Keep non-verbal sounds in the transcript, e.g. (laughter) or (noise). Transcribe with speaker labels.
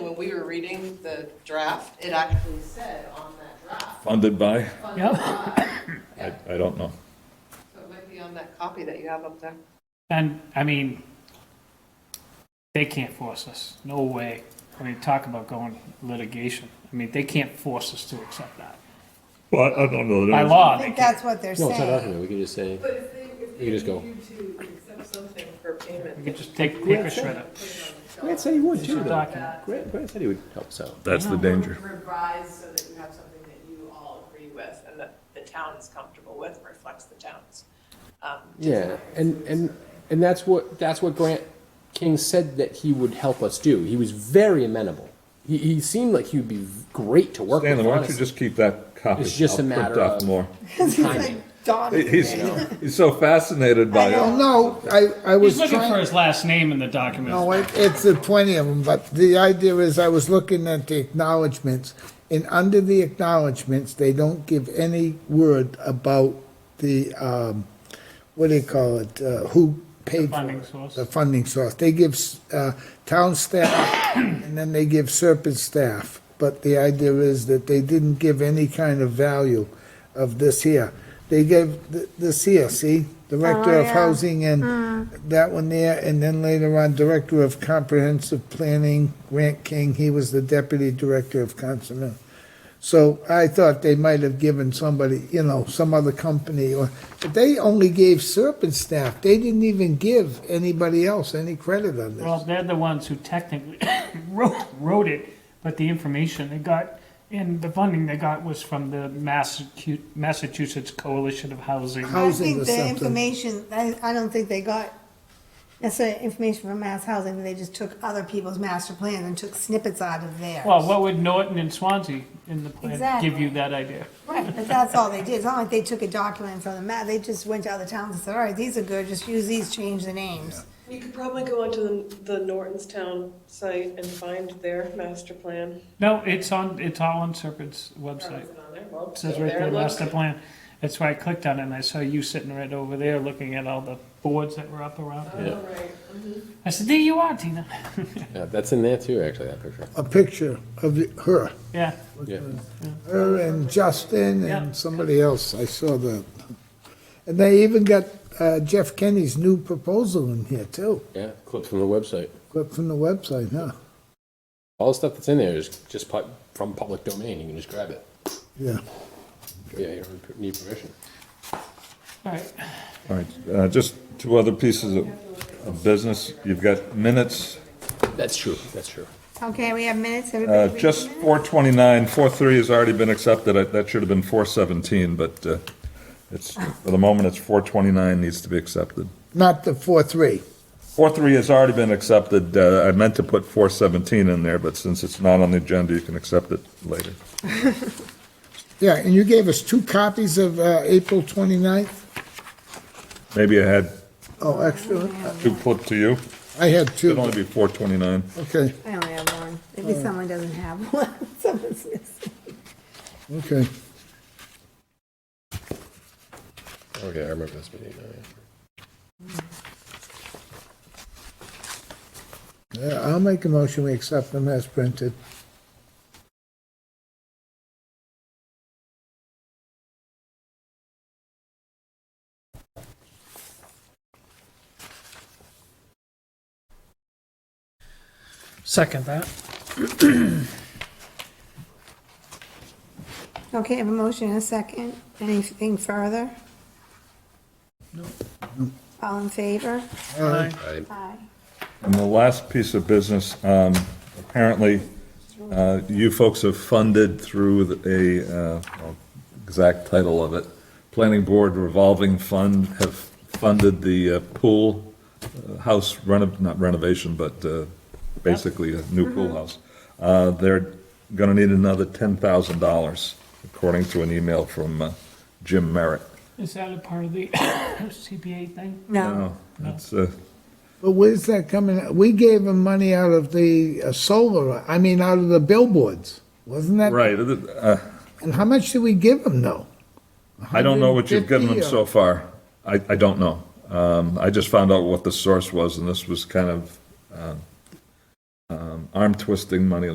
Speaker 1: we were reading the draft, it actually said on that draft.
Speaker 2: Funded by,
Speaker 1: funded by-
Speaker 2: I,
Speaker 1: Yeah,
Speaker 2: I don't know.
Speaker 1: So it might be on that copy that you have up there.
Speaker 3: And, I mean, they can't force us, no way. I mean, talk about going litigation. I mean, they can't force us to accept that.
Speaker 2: Well, I I don't know. that
Speaker 3: By
Speaker 2: it was-
Speaker 3: law,
Speaker 4: I
Speaker 3: they
Speaker 4: think
Speaker 3: can't.
Speaker 4: that's what they're
Speaker 5: No, it's not
Speaker 4: saying.
Speaker 5: documented, we can just say,
Speaker 1: But if they, if
Speaker 5: they You just go.
Speaker 1: need you to accept something for payment.
Speaker 3: We could just take quicker
Speaker 5: that's it.
Speaker 3: shredder.
Speaker 5: Grant said he would
Speaker 3: It's a
Speaker 5: too, though.
Speaker 3: document.
Speaker 5: Grant, Grant said he would help us out.
Speaker 2: That's the danger.
Speaker 1: Revise so that you have something that you all agree with and that the town is comfortable with, reflects the town's. um,
Speaker 5: Yeah, and, and, and that's what, that's what Grant King said that he would help us do. He was very amenable. He, he seemed like he'd be great to work with,
Speaker 2: Stanley, why don't you
Speaker 5: honestly.
Speaker 2: just keep that copy?
Speaker 5: It's just a
Speaker 2: I'll print
Speaker 5: matter
Speaker 2: off
Speaker 5: of- (laughs)
Speaker 2: More.
Speaker 4: It's like dawn
Speaker 2: He- He's, he's so fascinated by
Speaker 4: I
Speaker 2: it.
Speaker 4: know.
Speaker 6: No, I, I was
Speaker 3: He's looking for
Speaker 6: trying,
Speaker 3: his last name in the document.
Speaker 6: no, it- it's the plenty of them, but the idea is I was looking at the acknowledgements. And under the acknowledgements, they don't give any word about the, um, what do you call it, uh, who paid for
Speaker 3: funding
Speaker 6: it,
Speaker 3: source.
Speaker 6: The funding source. They give, uh, town staff and then they give Serpent staff. But the idea is that they didn't give any kind of value of this here. They gave th- this here, see? Director of
Speaker 4: yeah.
Speaker 6: Housing and that one there, and then later on, Director of Comprehensive Planning, Grant King, he was the Deputy Director of Consumer. So I thought they might have given somebody, you know, some other company, or, but they only gave Serpent staff. They didn't even give anybody else any credit on this.
Speaker 3: Well, they're the ones who technically (coughs) wrote, wrote it, but the information they got and the funding they got was from the Massacu- Massachusetts Coalition of Housing.
Speaker 4: I
Speaker 6: housing
Speaker 4: think
Speaker 6: or
Speaker 4: the
Speaker 6: something.
Speaker 4: information, I, I don't think they got necessarily information from mass housing, they just took other people's master plans and took snippets out of theirs.
Speaker 3: Well, what would Norton and Swansea in the plan give
Speaker 4: Exactly.
Speaker 3: you that idea?
Speaker 4: Right, but that's all they did, it's not like they took a document from the map, they just went to other towns and said, all right, these are good, just use these, change the names.
Speaker 7: You could probably go onto the, the Nortonstown site and find their master plan.
Speaker 3: No, it's on, it's all on Serpent's website.
Speaker 7: Is it on there? Well,
Speaker 3: It says
Speaker 7: go
Speaker 3: right
Speaker 7: there
Speaker 3: there,
Speaker 7: and look.
Speaker 3: master plan. That's why I clicked on it and I saw you sitting right over there looking at all the boards that were up around. it.
Speaker 5: Yeah.
Speaker 7: All right.
Speaker 3: I said, there you are, Tina. (laughs)
Speaker 5: Yeah, that's in there too, actually, that picture.
Speaker 6: A picture of the- her,
Speaker 3: Yeah,
Speaker 5: Yeah.
Speaker 6: her and Justin
Speaker 3: Yeah.
Speaker 6: and somebody else. I saw that. And they even got uh, Jeff Kenny's new proposal in here too,
Speaker 5: Yeah, clip from the website.
Speaker 6: clip from the website, huh?
Speaker 5: All the stuff that's in there is just pu- from public domain, you can just grab it.
Speaker 6: Yeah.
Speaker 5: Yeah, you don't need permission.
Speaker 3: all right.
Speaker 2: All right, uh, just two other pieces of, of business. You've got minutes,
Speaker 5: That's true, that's true.
Speaker 4: Okay, we have minutes,
Speaker 2: uh,
Speaker 4: everybody read the
Speaker 2: just
Speaker 4: minutes?
Speaker 2: four twenty-nine, four three has already been accepted. I- That should have been four seventeen, but, uh, it's, for the moment, it's four twenty-nine needs to be accepted.
Speaker 6: Not the four, three.
Speaker 2: Four three has already been accepted. Uh, I meant to put four seventeen in there, but since it's not on the agenda, you can accept it later.
Speaker 6: Yeah, and you gave us two copies of uh, April 29th?
Speaker 2: Maybe I had
Speaker 6: Oh, excellent.
Speaker 2: two put to you.
Speaker 6: I had
Speaker 2: It'd
Speaker 6: two.
Speaker 2: only be four twenty-nine.
Speaker 6: Okay,
Speaker 4: I only have one, maybe someone doesn't have (laughs) one, someone's missing.
Speaker 6: okay.
Speaker 5: Okay, I remember this meeting now, yeah.
Speaker 6: Yeah, I'll make a motion, we accept them as printed.
Speaker 3: Second that.
Speaker 4: Okay, I have a motion and a second, anything further? No. All in favor? Aye.
Speaker 2: And the last piece of business, um, apparently, uh, you folks have funded through the- a, uh, well, exact title of it, Planning Board Revolving Fund, have funded the uh, pool uh, house reno, not renovation, but uh, basically a new pool house. Uh, They're going to need another $10,000, according to an email from uh, Jim Merritt.
Speaker 3: Is that a part of the (coughs) CPA thing?
Speaker 4: No.
Speaker 2: That's, uh,
Speaker 6: But where's that coming, out? we gave them money out of the uh, solar, I mean, out of the billboards, wasn't that?
Speaker 2: right, uh,
Speaker 6: And how much did we give them, though?
Speaker 2: I don't know what you've given them
Speaker 6: 150
Speaker 2: so far. I, I don't know. Um, I just found out what the source was, and this was kind of, um, um, arm twisting money